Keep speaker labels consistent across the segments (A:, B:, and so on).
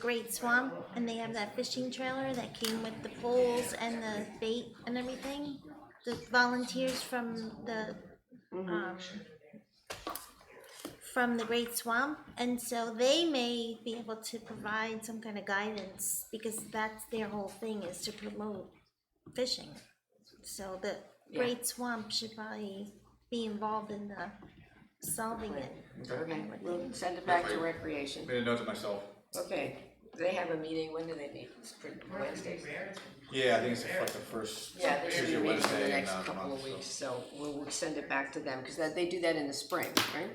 A: Great Swamp, and they have that fishing trailer that came with the poles and the bait and everything. The volunteers from the, um, from the Great Swamp, and so they may be able to provide some kind of guidance, because that's their whole thing, is to promote fishing. So the Great Swamp should probably be involved in the solving it.
B: Okay, we'll send it back to recreation.
C: Made a note to myself.
B: Okay, they have a meeting, when do they meet? It's pretty Wednesdays.
C: Yeah, I think it's like the first
B: Yeah, they should be meeting
C: Tuesday,
B: in the
C: Wednesday in
B: next
C: uh, the
B: couple
C: month,
B: of
C: so.
B: weeks, so we'll, we'll send it back to them, because they do that in the spring, right?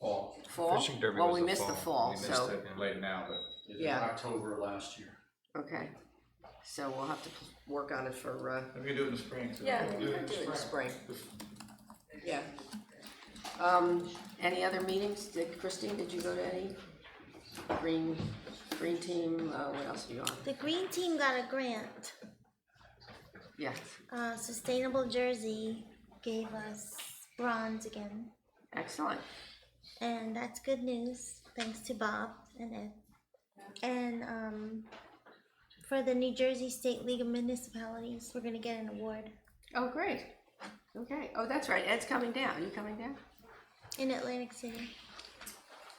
C: Fall.
B: Fall?
D: Fishing derby
B: Well,
D: was
B: we
D: the
B: missed the
C: We
B: fall,
C: missed
B: so,
C: it late now, but
B: yeah,
E: October last year.
B: okay. So we'll have to work on it for, uh,
C: maybe we can do it in the spring. so-
B: yeah, we could do it in the spring. Yeah. Um, any other meetings? Did, Christine, did you go to any? Green, Green Team, uh, what else are you on?
A: The Green Team got a grant.
B: Yes,
A: Uh, Sustainable Jersey gave us bronze again,
B: excellent.
A: and that's good news. Thanks to Bob and Ed. And um, for the New Jersey State League of Municipalities, we're gonna get an award
B: Oh, great. Okay, oh, that's right, Ed's coming down, you coming down?
A: in Atlantic City.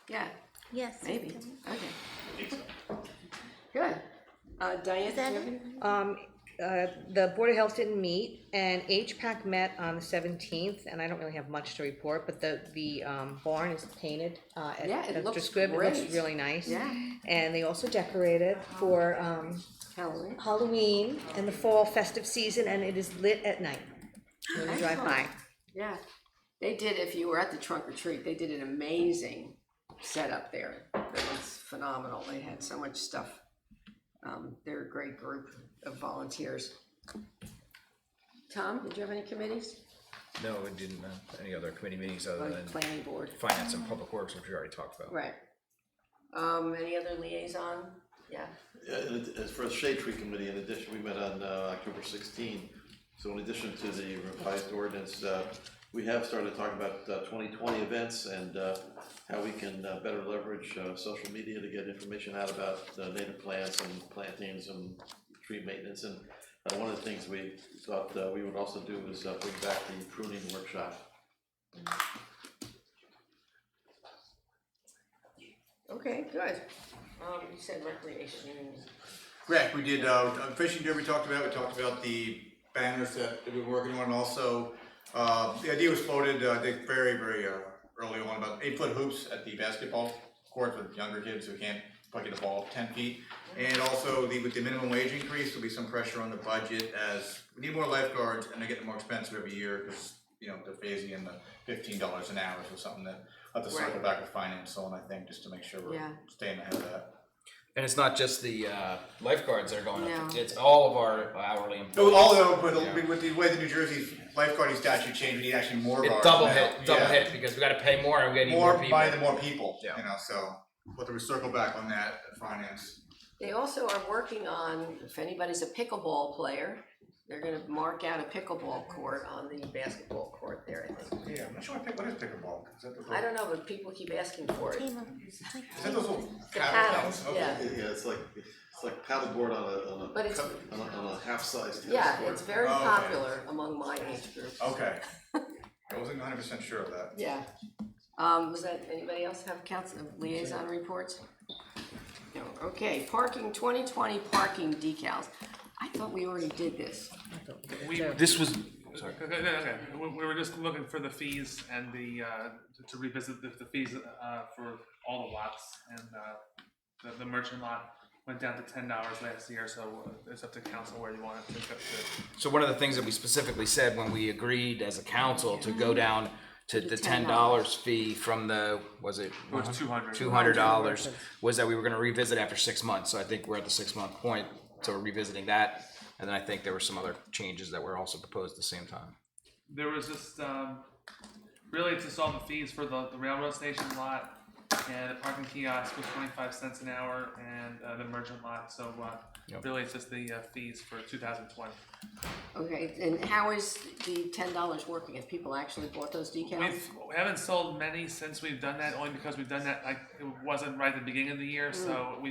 B: Yeah,
A: Yes,
B: maybe, okay. Good. Uh, Diane, do you have any-
F: Um, uh, the Board of Health didn't meet, and HPAC met on the seventeenth, and I don't really have much to report, but the, the, um, barn is painted, uh, at
B: Yeah, it
F: Dr.
B: looks
F: Squibb. It looks
B: great.
F: really nice.
B: Yeah.
F: And they also decorated for, um,
B: Helen?
F: Halloween and the fall festive season, and it is lit at night. When you drive by,
B: Excellent. Yeah, they did, if you were at the trunk or treat, they did an amazing setup there. It was phenomenal, they had so much stuff. Um, they're a great group of volunteers. Tom, did you have any committees?
D: No, it didn't, uh, any other committee meetings other
B: Or
D: than
B: planning board,
D: finance and public works, which we already talked about.
B: right. Um, any other liaison? Yeah,
G: Yeah, and it- as for the shade tree committee, in addition, we met on uh, October sixteen. So in addition to the revised ordinance, uh, we have started talking about uh, twenty twenty events and uh, how we can uh, better leverage uh, social media to get information out about uh, native plants and plantings and tree maintenance. And uh, one of the things we thought uh, we would also do is uh, bring back the pruning workshop.
B: okay, good. Um, you said recreation,
C: Correct, we did, uh, uh, fishing derby we talked about, we talked about the banners that we were working on, and also, uh, the idea was floated, uh, I think very, very, uh, early on, about eight foot hoops at the basketball court for younger kids who can't fucking get the ball ten feet. And also, the, with the minimum wage increase, there'll be some pressure on the budget as we need more lifeguards, and they're getting more expensive every year, cause, you know, they're phasing in the fifteen dollars an hour, so something that, I'll have to circle
B: Right.
C: back with finance on, I think, just to make sure we're
B: Yeah.
C: staying ahead of that.
D: And it's not just the uh, lifeguards that are going up,
B: No.
D: it's all of our hourly
C: No,
D: employees.
C: although, but with the way the New Jersey's lifeguarding statute changed, we need actually more
D: It
C: guards
D: double
C: now.
D: hit, double
C: Yeah.
D: hit, because we gotta pay more and we gotta need
C: More
D: more
C: by the
D: people.
C: more people, you
D: Yeah.
C: know, so, we'll have to circle back on that, at finance.
B: They also are working on, if anybody's a pickleball player, they're gonna mark out a pickleball court on the basketball court there, I think.
C: Yeah, I'm not sure what pick, what is pickleball? Is that the-
B: I don't know, but people keep asking for it.
A: table. It's like
C: Is that those little?
B: paddles,
C: Okay.
B: yeah.
G: Yeah, it's like, it's like paddleboard on a, on a,
B: But it's-
G: cup- on a, on a half-sized tennis court.
B: Yeah, it's very
C: Oh, okay. Oh.
B: popular among my age group.
C: Okay, I wasn't hundred percent sure of that.
B: Yeah. Um, was that, anybody else have council liaison reports? No, okay, parking, twenty twenty parking decals. I thought we already did this.
H: We,
D: This was,
H: okay, okay, okay. We, we were just looking for the fees and the, uh, to- to revisit the, the fees, uh, for all the lots and, uh, the, the merchant lot went down to ten dollars last year, so it's up to council where you want it to go to.
D: so one of the things that we specifically said when we agreed as a council to go down to the ten dollars fee from the, was it?
H: It was two hundred.
D: two hundred dollars was that we were gonna revisit after six months, so I think we're at the six month point, so we're revisiting that. And then I think there were some other changes that were also proposed at the same time.
H: There was just, um, really to solve the fees for the, the railroad station lot and the parking kiosk was twenty-five cents an hour and, uh, the merchant lot, so, uh,
D: Yep.
H: really it's just the, uh, fees for two thousand twenty.
B: Okay, and how is the ten dollars working? Have people actually bought those decals?
H: We've, we haven't sold many since we've done that, only because we've done that, like, it wasn't right at the beginning of the year, so we